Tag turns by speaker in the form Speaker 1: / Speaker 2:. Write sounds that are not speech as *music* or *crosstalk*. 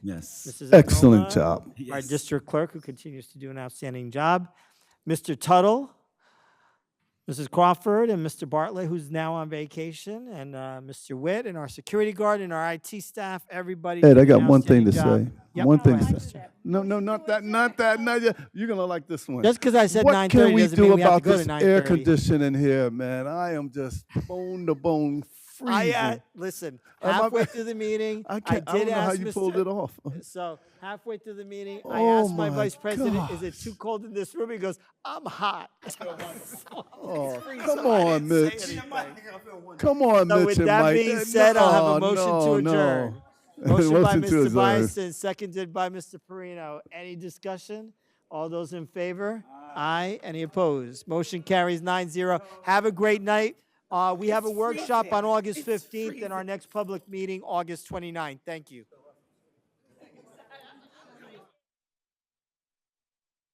Speaker 1: Yes.
Speaker 2: Mrs.
Speaker 3: Excellent
Speaker 2: Agnoma,
Speaker 3: job.
Speaker 2: Our
Speaker 1: Yes.
Speaker 2: district clerk, who continues to do an outstanding job. Mr. Tuttle, Mrs. Crawford, and Mr. Bartlett, who's now on vacation, and uh, Mr. Witt, and our security guard, and our IT staff, everybody.
Speaker 3: Ed,
Speaker 2: did
Speaker 3: I
Speaker 2: an
Speaker 3: got one thing to
Speaker 2: outstanding
Speaker 3: say.
Speaker 2: job. Yep,
Speaker 3: One
Speaker 2: go
Speaker 3: thing to
Speaker 2: ahead,
Speaker 3: say.
Speaker 2: Mr.
Speaker 3: No, no, not that, not that, not yet. You're gonna like this one.
Speaker 2: Just because I said
Speaker 3: What
Speaker 2: nine
Speaker 3: can
Speaker 2: thirty
Speaker 3: we
Speaker 2: doesn't
Speaker 3: do
Speaker 2: mean we have to
Speaker 3: about
Speaker 2: go to
Speaker 3: this
Speaker 2: nine
Speaker 3: air
Speaker 2: thirty.
Speaker 3: conditioning here, man? I am just bone to bone
Speaker 2: I, uh,
Speaker 3: freezing.
Speaker 2: listen,
Speaker 3: I'm up-
Speaker 2: halfway through the meeting,
Speaker 3: *laughs* I
Speaker 2: I
Speaker 3: can't, I don't
Speaker 2: did
Speaker 3: know how
Speaker 2: ask
Speaker 3: you pulled it
Speaker 2: Mr.
Speaker 3: off.
Speaker 2: So halfway through the meeting, I
Speaker 3: Oh
Speaker 2: asked my
Speaker 3: my
Speaker 2: vice president, "Is it
Speaker 3: gosh.
Speaker 2: too cold in this room?" He goes, "I'm hot." *laughs*
Speaker 3: Oh, *laughs* come on, Mitch. Come on,
Speaker 2: So
Speaker 3: Mitch
Speaker 2: with
Speaker 3: and
Speaker 2: that
Speaker 3: Mike.
Speaker 2: being
Speaker 3: Eh,
Speaker 2: said, I'll have a
Speaker 3: no,
Speaker 2: motion
Speaker 3: no,
Speaker 2: to
Speaker 3: no. *laughs*
Speaker 2: adjourn. Motion by
Speaker 3: Motion
Speaker 2: Mr.
Speaker 3: to adjourn.
Speaker 2: Bison, seconded by Mr. Perino. Any discussion? All those in favor? Aye. Any opposed? Motion carries 9-0. Have a great night. Uh, we have a workshop on August 15th and our next public meeting, August 29th. Thank you.